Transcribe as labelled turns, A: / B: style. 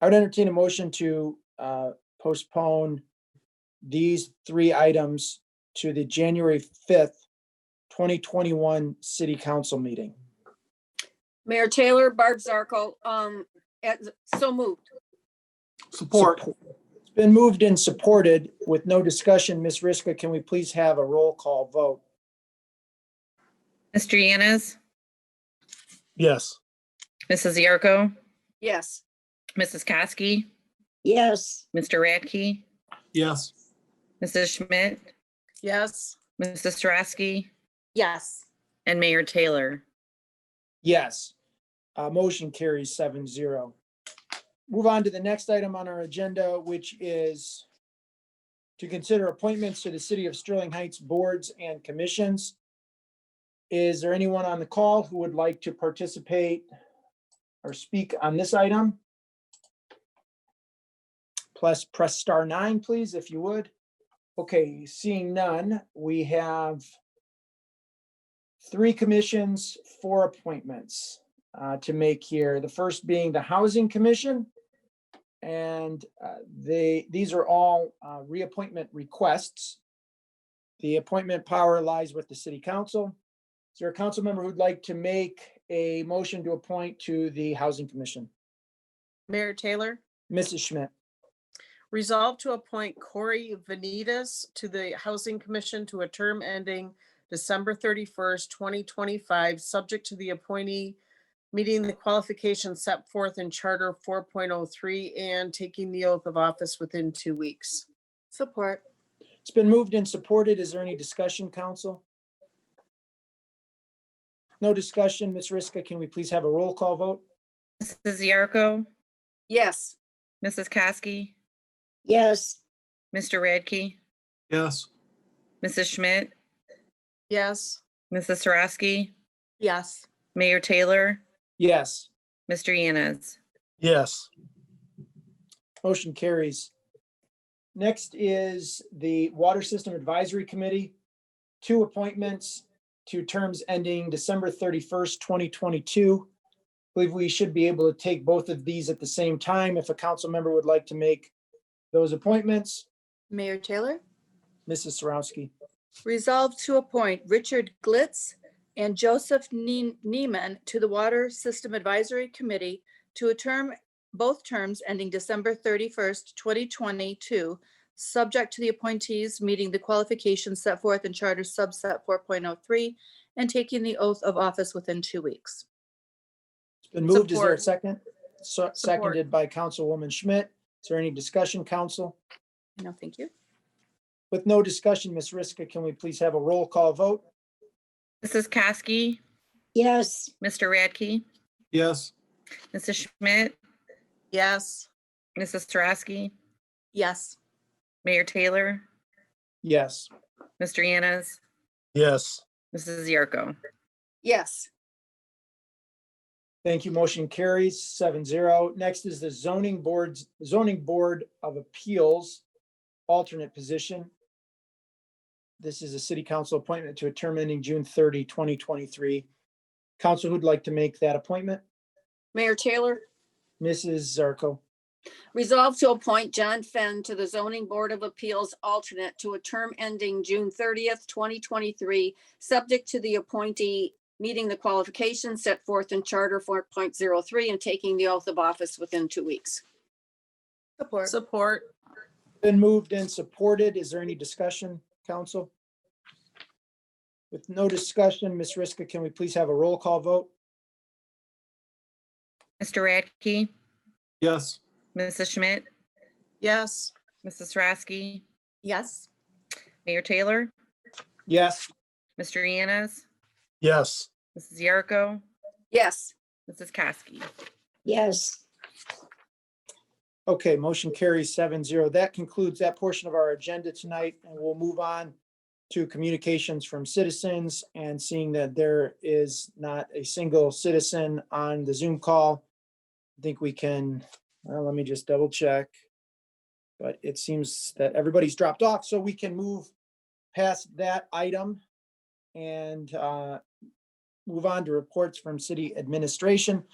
A: I would entertain a motion to uh, postpone these three items to the January 5th, 2021 city council meeting.
B: Mayor Taylor, Barb Zarko, um, at- so moved.
C: Support.
A: It's been moved and supported with no discussion. Ms. Riska, can we please have a roll call vote?
D: Mr. Yanez,
C: Yes.
D: Mrs. Yarko,
B: Yes.
D: Mrs. Kosky,
E: yes,
D: Mr. Radke,
C: Yes.
D: Mrs. Schmidt,
F: Yes.
D: Mrs. Sarowski,
F: Yes.
D: and Mayor Taylor.
A: Yes. Uh, Motion carries seven zero. Move on to the next item on our agenda, which is to consider appointments to the City of Sterling Heights boards and commissions. Is there anyone on the call who would like to participate or speak on this item? Plus, press star nine, please, if you would. Okay, seeing none, we have three commissions, four appointments uh, to make here. The first being the Housing Commission. And uh, they, these are all uh, reappointment requests. The appointment power lies with the City Council. Is there a council member who'd like to make a motion to appoint to the Housing Commission?
F: Mayor Taylor,
A: Mrs. Schmidt,
F: resolve to appoint Corey Venitas to the Housing Commission to a term ending December thirty-first, twenty twenty-five, subject to the appointee meeting the qualifications set forth in Charter four point oh three and taking the oath of office within two weeks. Support.
A: it's been moved and supported. Is there any discussion, council? No discussion. Ms. Riska, can we please have a roll call vote?
D: Mrs. Yarko,
B: Yes.
D: Mrs. Kosky,
E: yes,
D: Mr. Radke,
C: Yes.
D: Mrs. Schmidt,
F: Yes.
D: Mrs. Sarowski,
F: Yes.
D: Mayor Taylor,
A: Yes.
D: Mr. Yanez.
C: Yes.
A: Motion carries. Next is the Water System Advisory Committee. Two appointments, two terms ending December thirty-first, twenty twenty-two. Believe we should be able to take both of these at the same time if a council member would like to make those appointments.
G: Mayor Taylor,
A: Mrs. Sarowski,
G: resolve to appoint Richard Glitz and Joseph Ne- Neiman to the Water System Advisory Committee to a term, both terms ending December 31st, 2022, subject to the appointees meeting the qualifications set forth in Charter subset 4.03 and taking the oath of office within two weeks.
A: it's been moved. Is there a
F: Support.
A: second? So- Seconded by Councilwoman Schmidt. Is there any discussion, council?
G: No, thank you.
A: With no discussion, Ms. Riska, can we please have a roll call vote?
D: Mrs. Kosky,
E: yes.
D: Mr. Radke,
C: Yes.
D: Mrs. Schmidt,
F: Yes.
D: Mrs. Sarowski,
G: Yes.
D: Mayor Taylor,
A: Yes.
D: Mr. Yanez,
C: Yes.
D: Mrs. Yarko.
B: Yes.
A: Thank you. Motion carries seven zero. Next is the zoning boards, zoning board of appeals, alternate position. This is a city council appointment to a term ending June 30, 2023. Council who'd like to make that appointment?
B: Mayor Taylor,
A: Mrs. Zarco.
B: resolve to appoint John Fenn to the Zoning Board of Appeals alternate to a term ending June thirtieth, twenty twenty-three, subject to the appointee meeting the qualifications set forth in Charter four point zero three and taking the oath of office within two weeks.
G: Support.
F: Support.
A: Been moved and supported. Is there any discussion, council? With no discussion, Ms. Riska, can we please have a roll call vote?
D: Mr. Radke,
C: Yes.
D: Mrs. Schmidt,
F: Yes.
D: Mrs. Sarowski,
G: Yes.
D: Mayor Taylor,
A: Yes.
D: Mr. Yanez,
C: Yes.
D: Mrs. Yarko,
B: Yes.
D: Mrs. Kosky.
E: Yes,
A: Okay, motion carries seven zero. That concludes that portion of our agenda tonight, and we'll move on to communications from citizens and seeing that there is not a single citizen on the Zoom call. I think we can, well, let me just double check. But it seems that everybody's dropped off, so we can move past that item and uh, move on to reports from city administration.